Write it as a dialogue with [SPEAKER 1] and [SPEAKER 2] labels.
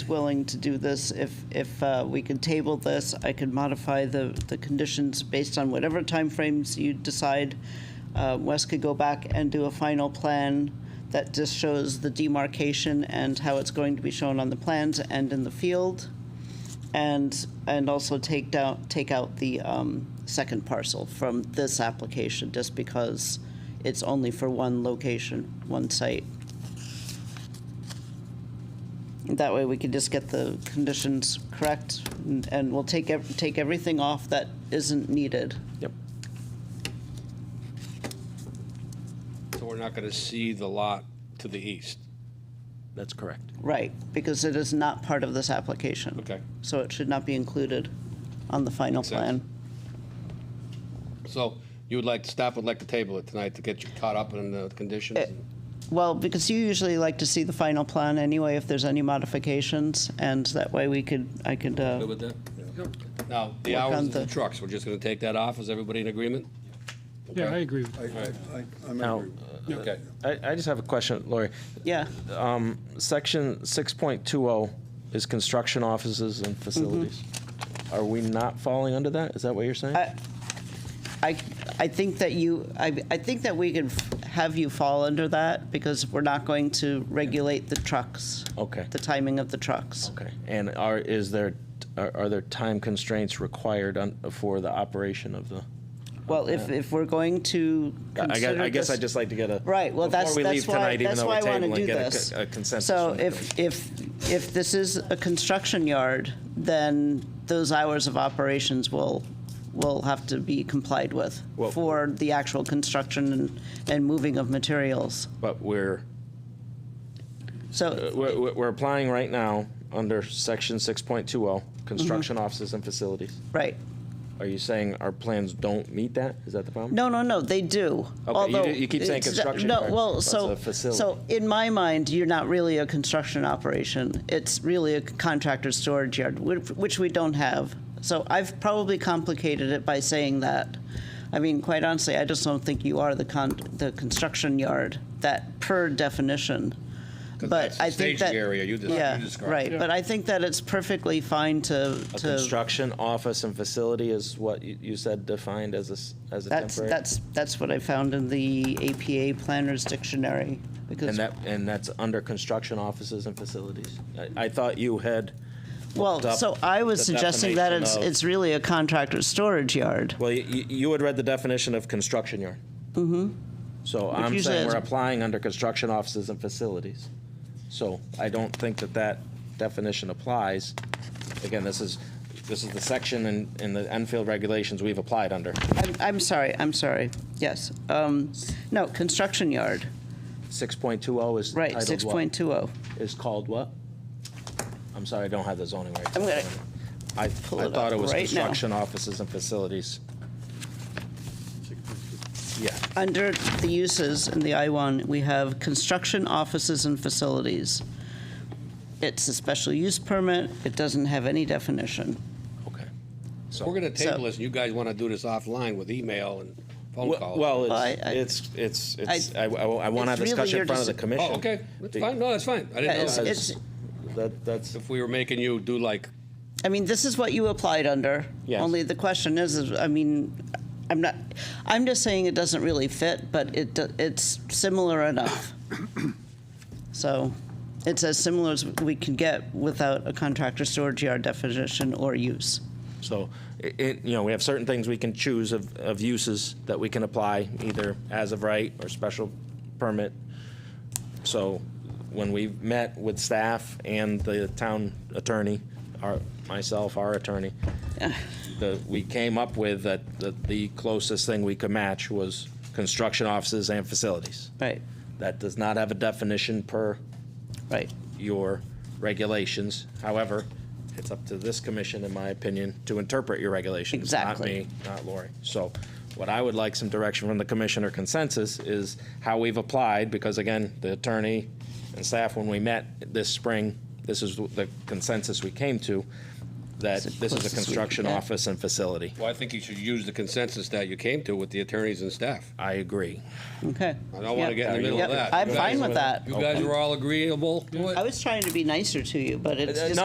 [SPEAKER 1] willing to do this. If, if uh, we can table this, I can modify the, the conditions based on whatever timeframes you decide. Uh, Wes could go back and do a final plan that just shows the demarcation and how it's going to be shown on the plans and in the field. And, and also take down, take out the um, second parcel from this application, just because it's only for one location, one site. That way, we can just get the conditions correct, and- and we'll take, ev- take everything off that isn't needed.
[SPEAKER 2] Yep.
[SPEAKER 3] So we're not going to see the lot to the east.
[SPEAKER 2] That's correct.
[SPEAKER 1] Right, because it is not part of this application.
[SPEAKER 3] Okay.
[SPEAKER 1] So it should not be included on the final
[SPEAKER 3] Makes sense.
[SPEAKER 1] plan.
[SPEAKER 3] So you would like, staff would like to table it tonight to get you caught up in the conditions?
[SPEAKER 1] Eh. Well, because you usually like to see the final plan anyway, if there's any modifications, and that way we could, I could, uh,
[SPEAKER 3] Good with that? Now, the
[SPEAKER 1] Work on
[SPEAKER 3] hours of the
[SPEAKER 1] the-
[SPEAKER 3] trucks, we're just going to take that off. Is everybody in agreement?
[SPEAKER 4] Yeah, I agree. with
[SPEAKER 5] I, I, I- I'm
[SPEAKER 2] Now,
[SPEAKER 5] agree.
[SPEAKER 3] Okay.
[SPEAKER 2] I, I just have a question, Lori.
[SPEAKER 1] yeah,
[SPEAKER 2] Section 6.20 is construction offices and facilities. Are we not falling under that? Is that what you're saying?
[SPEAKER 1] Mm-hmm. I- I, I think that you, I, I think that we can f- have you fall under that, because we're not going to regulate the trucks.
[SPEAKER 2] Okay.
[SPEAKER 1] The timing of the trucks.
[SPEAKER 2] Okay. And are, is there, are are there time constraints required on- for the operation of the?
[SPEAKER 1] Well, if, if we're going to
[SPEAKER 2] I guess,
[SPEAKER 1] consider
[SPEAKER 2] I guess I
[SPEAKER 1] this-
[SPEAKER 2] just like to get a.
[SPEAKER 1] Right, well, that's,
[SPEAKER 2] Before we
[SPEAKER 1] that's
[SPEAKER 2] leave
[SPEAKER 1] why,
[SPEAKER 2] tonight, even
[SPEAKER 1] that's
[SPEAKER 2] though
[SPEAKER 1] why I
[SPEAKER 2] we're
[SPEAKER 1] want to
[SPEAKER 2] tabling,
[SPEAKER 1] do
[SPEAKER 2] get a
[SPEAKER 1] this.
[SPEAKER 2] co- a consensus
[SPEAKER 1] So
[SPEAKER 2] from the
[SPEAKER 1] if, if, if this is a construction yard, then those hours of operations will, will have to be complied with
[SPEAKER 2] Well-
[SPEAKER 1] for the actual construction and, and moving of materials.
[SPEAKER 2] But we're,
[SPEAKER 1] So,
[SPEAKER 2] we're, we're- we're applying right now under section 6.20, oh, construction
[SPEAKER 1] Mm-hmm.
[SPEAKER 2] offices and facilities.
[SPEAKER 1] right.
[SPEAKER 2] Are you saying our plans don't meet that? Is that the problem?
[SPEAKER 1] No, no, no, they do.
[SPEAKER 2] you
[SPEAKER 1] although
[SPEAKER 2] do- you keep saying
[SPEAKER 1] it's-
[SPEAKER 2] construction
[SPEAKER 1] No,
[SPEAKER 2] yard,
[SPEAKER 1] well,
[SPEAKER 2] that's
[SPEAKER 1] so,
[SPEAKER 2] a facility.
[SPEAKER 1] so in my mind, you're not really a construction operation. It's really a contractor storage yard, which which we don't have. So I've probably complicated it by saying that. I mean, quite honestly, I just don't think you are the con, the construction yard, that per definition. But
[SPEAKER 3] that's the
[SPEAKER 1] I think that.
[SPEAKER 3] staging area you des-
[SPEAKER 1] yeah,
[SPEAKER 3] you described.
[SPEAKER 1] Right, but I think that it's perfectly fine to,
[SPEAKER 2] A
[SPEAKER 1] to,
[SPEAKER 2] construction office and facility is what you, you said defined as a, s- as a
[SPEAKER 1] that's,
[SPEAKER 2] temporary?
[SPEAKER 1] that's, that's what I found in the APA Planner's Dictionary. because.
[SPEAKER 2] And that, and that's under construction offices and facilities? I, I thought you had,
[SPEAKER 1] Well,
[SPEAKER 2] looked up
[SPEAKER 1] so I was
[SPEAKER 2] the
[SPEAKER 1] suggesting that it's,
[SPEAKER 2] definition of-
[SPEAKER 1] it's really a contractor's storage yard.
[SPEAKER 2] well, you, you had read the definition of construction yard. Mm-hmm. So I'm
[SPEAKER 1] usually
[SPEAKER 2] saying
[SPEAKER 1] is-
[SPEAKER 2] we're applying under construction offices and facilities. So I don't think that that definition applies. Again, this is, this is the section in, in the Enfield regulations we've applied under.
[SPEAKER 1] I'm, I'm sorry, I'm sorry, yes. Um, No, construction yard,
[SPEAKER 2] 6.20 is
[SPEAKER 1] right,
[SPEAKER 2] titled what?
[SPEAKER 1] 6.20.
[SPEAKER 2] is called what? I'm sorry, I don't have the zoning right.
[SPEAKER 1] I'm gonna
[SPEAKER 2] I, I
[SPEAKER 1] it up
[SPEAKER 2] thought it was
[SPEAKER 1] right now.
[SPEAKER 2] construction offices and facilities. Yeah,
[SPEAKER 1] Under the uses in the I-1, we have construction offices and facilities. It's a special use permit, it doesn't have any definition.
[SPEAKER 2] okay.
[SPEAKER 3] We're going to table
[SPEAKER 1] So-
[SPEAKER 3] this, and you guys want to do this offline with email and phone
[SPEAKER 2] Well,
[SPEAKER 3] calls.
[SPEAKER 2] well,
[SPEAKER 1] Well, I- I-
[SPEAKER 2] it's, it's, it's, it's, I,
[SPEAKER 1] I-
[SPEAKER 2] want to have
[SPEAKER 1] It's really
[SPEAKER 2] discussion
[SPEAKER 1] your
[SPEAKER 2] in front of the
[SPEAKER 1] deci-
[SPEAKER 2] commission.
[SPEAKER 3] Oh, okay, that's
[SPEAKER 2] Be-
[SPEAKER 3] fine, no, that's fine. I
[SPEAKER 1] Yeah,
[SPEAKER 3] didn't
[SPEAKER 1] it's-
[SPEAKER 3] know that.
[SPEAKER 1] it's,
[SPEAKER 2] That, that's,
[SPEAKER 3] If we were making you do like,
[SPEAKER 1] I mean, this is what you applied under.
[SPEAKER 2] Yes.
[SPEAKER 1] Only the question is, is, I mean, I'm not, I'm just saying it doesn't really fit, but it, do- it's similar enough. So it's as similar as we can get without a contractor storage yard definition or use.
[SPEAKER 2] so, i- it, you know, we have certain things we can choose of, of uses that we can apply, either as of right or special permit. So when we met with staff and the town attorney, our, myself, our attorney, the, we came up with that, that the closest thing we could match was construction offices and facilities.
[SPEAKER 1] Right,
[SPEAKER 2] That does not have a definition per
[SPEAKER 1] right.
[SPEAKER 2] your regulations. However, it's up to this commission, in my opinion, to interpret your regulations.
[SPEAKER 1] Exactly.
[SPEAKER 2] Not me, not Lori. So what I would like some direction from the commissioner consensus is how we've applied, because again, the attorney and staff, when we met this spring, this is the consensus we came to, that
[SPEAKER 1] It's the
[SPEAKER 2] this is
[SPEAKER 1] closest
[SPEAKER 2] a
[SPEAKER 1] we can
[SPEAKER 2] construction
[SPEAKER 1] get.
[SPEAKER 2] office and facility.
[SPEAKER 3] well, I think you should use the consensus that you came to with the attorneys and staff.
[SPEAKER 2] I agree.
[SPEAKER 1] Okay.
[SPEAKER 3] I don't want
[SPEAKER 1] Yep.
[SPEAKER 3] to get in the middle of
[SPEAKER 1] Yep,
[SPEAKER 3] that.
[SPEAKER 1] I'm
[SPEAKER 3] You
[SPEAKER 1] fine
[SPEAKER 3] guys-
[SPEAKER 1] with that.
[SPEAKER 3] You guys were all agreeable to it?
[SPEAKER 1] I was trying to be nicer to you, but it's
[SPEAKER 2] Uh,
[SPEAKER 1] just